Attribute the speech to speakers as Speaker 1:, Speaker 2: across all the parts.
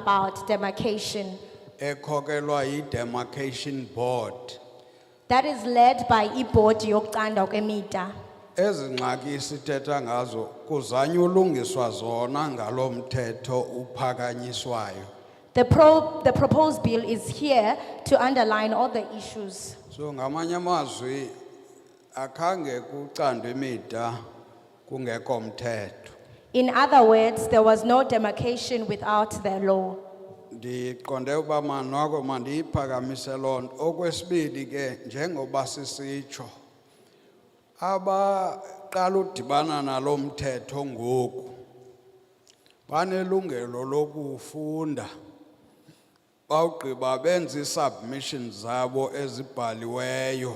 Speaker 1: about demarcation
Speaker 2: ekhokelwa yi-demarcation board
Speaker 1: that is led by ibhodi yokucanda kwemida.
Speaker 2: ezi ngxaki sithetha ngazo kuzanywa ulungiswa zona ngalo mthetho uphakanyiswayo
Speaker 1: The pro, the proposed bill is here to underline all the issues.
Speaker 2: so ngamanye amazwi akhange kucandwe imida kungekho mthetho
Speaker 1: In other words, there was no demarcation without the law.
Speaker 2: ndiqonde uba manoko mandiyiphakamise loo nto okwesibili ke njengoba sisitsho abaqala udibana nalo mthetho ngoku banelungelo lokufunda bawugqiba benze ii-submissions zabo ezibhaliweyo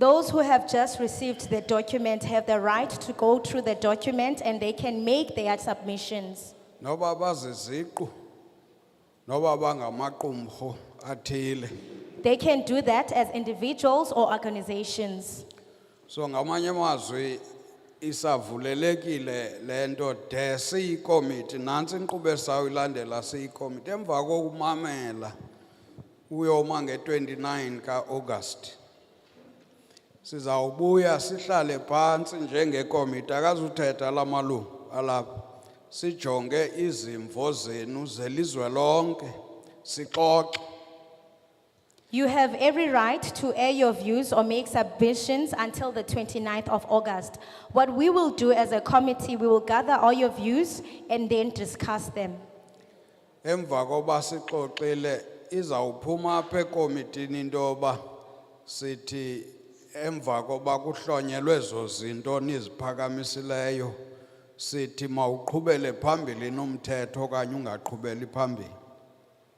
Speaker 1: Those who have just received the document have the right to go through the document and they can make their submissions.
Speaker 2: noba baziziqu noba bangamaqumrhu athile
Speaker 1: They can do that as individuals or organizations.
Speaker 2: So ngamanye amazwi isavulelekile lento de siyikomiti nansi inkqubo esawuyilandela siyikomiti emva kokumamela uyoma nge-29 kaAugust sizawubuya sihlale phantsi njengekomiti akazuthetha la malungu alapha sijonge izimvo zenu zelizwe lonke sixoxe
Speaker 1: You have every right to air your views or make submissions until the 29th of August. What we will do as a committee, we will gather all your views and then discuss them.
Speaker 2: emva koba sixoxile izawuphuma apha ekomitini into yoba sithi emva koba kuhlonyelwe ezo zinto niziphakamisileyo sithi mawuqhubele phambili nomthetho okanye ungaqhubeli phambili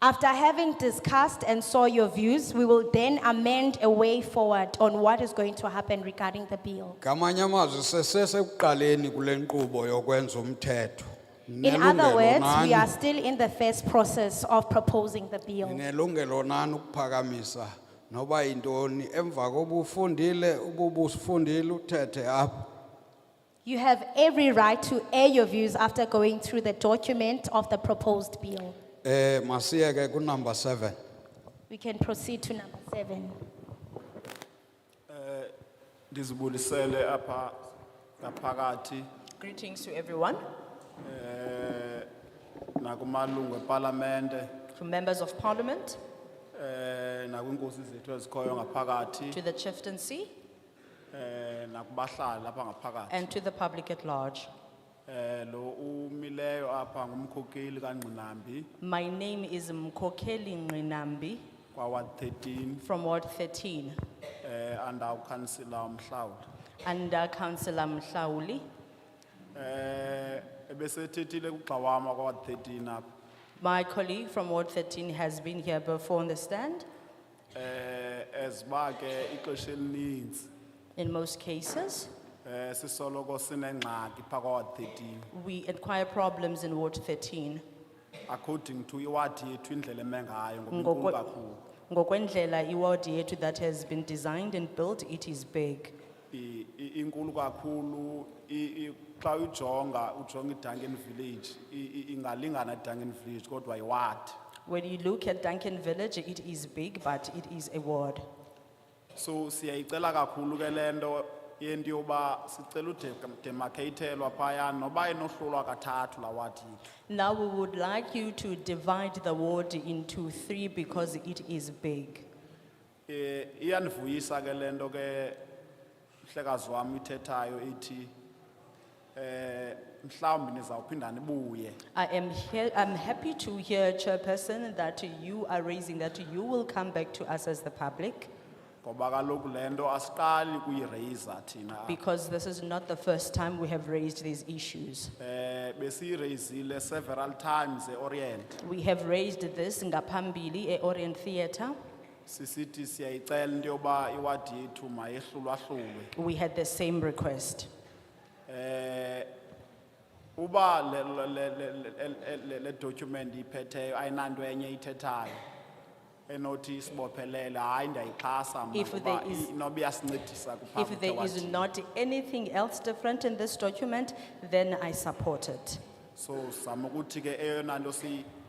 Speaker 1: After having discussed and saw your views, we will then amend a way forward on what is going to happen regarding the bill.
Speaker 2: ngamanye amazwi sesesekuqaleni kule nkqubo yokwenza umthetho
Speaker 1: In other
Speaker 2: Nelungelo
Speaker 1: words, we
Speaker 2: nani-
Speaker 1: are still in the first process of proposing the bill.
Speaker 2: Ninelungelo nani ukuphakamisa noba yintoni emva koba ufundile ububusifundile uthethe apha
Speaker 1: You have every right to air your views after going through the document of the proposed bill.
Speaker 2: Eh, masiye ke ku number seven.
Speaker 1: We can proceed to number seven.
Speaker 3: ndizibulisele apha ngaphakathi
Speaker 4: Greetings to everyone,
Speaker 3: eh nakumalungu eParlamente
Speaker 4: to members of parliament,
Speaker 3: eh nakwinkosi zethu ezikhoyo
Speaker 4: to
Speaker 3: ngaphakathi
Speaker 4: the chieftaincy,
Speaker 3: eh nakubahlali lapha ngaphakathi
Speaker 4: and to the public at large.
Speaker 3: eh lo umileyo apha ngumkhokeli kaNgqinambi
Speaker 4: My name is Mkokeli Nrinambi
Speaker 3: kwawa 13
Speaker 4: from Ward 13,
Speaker 3: eh under councilor uMhlawuli
Speaker 4: under councillor Mhlauli.
Speaker 3: eh ebesethethile kugxawama kwawa 13 apha
Speaker 4: My colleague from Ward 13 has been here before on the stand.
Speaker 3: eh eziba ke ixesha elininzi
Speaker 4: In most cases,
Speaker 3: eh sisoloko sinengxaki phakathi kwawa 13
Speaker 4: we acquire problems in Ward 13.
Speaker 3: according to iwadi yethu indlela eme ngayo ngoba
Speaker 4: Ngokwe-
Speaker 3: inkulu kakhulu
Speaker 4: Ngokwendlela iward yethu that has been designed and built, it is big.
Speaker 3: I- i- inkulu kakhulu i- i- xa uyijonga ujonga iduncan village i- i- ingalingana eduncan village kodwa iwadi
Speaker 4: When you look at Duncan Village, it is big, but it is a ward.
Speaker 3: so siyayicela kakhulu ke le nto yento yoba sicela udemarcatelwa phayana noba inohlulwa kathathu laa wadi yethu
Speaker 4: Now we would like you to divide the ward into three because it is big.
Speaker 3: um iyandivuyisa ke le nto ke mhlekazi wam ithethayo ithi um mhlawumbi nizawuphinda nibuye
Speaker 4: I am here, I'm happy to hear Chairperson that you are raising, that you will come back to us as the public
Speaker 3: ngoba kaloku le nto asiqali kuyireyisa thina
Speaker 4: because this is not the first time we have raised these issues.
Speaker 3: um besiyireyisile several times eorient
Speaker 4: We have raised this ngapambili e Orient Theatre.
Speaker 3: sisithi siyayicela into yoba iwadi yethu mayehlulwahlulwe
Speaker 4: We had the same request.
Speaker 3: um uba le- le- le- le- le- le- le document iphetheyo ayinanto enye ithethayo enothi isibophelele hayi ndiyayixhasa mna
Speaker 4: If
Speaker 3: ngoba
Speaker 4: there is-
Speaker 3: i- inoba iyasincedisa kuphambi
Speaker 4: If there is
Speaker 3: kwewadi.
Speaker 4: not anything else different in this document, then I support it.
Speaker 3: so sizama ukuthi ke eyona nto si-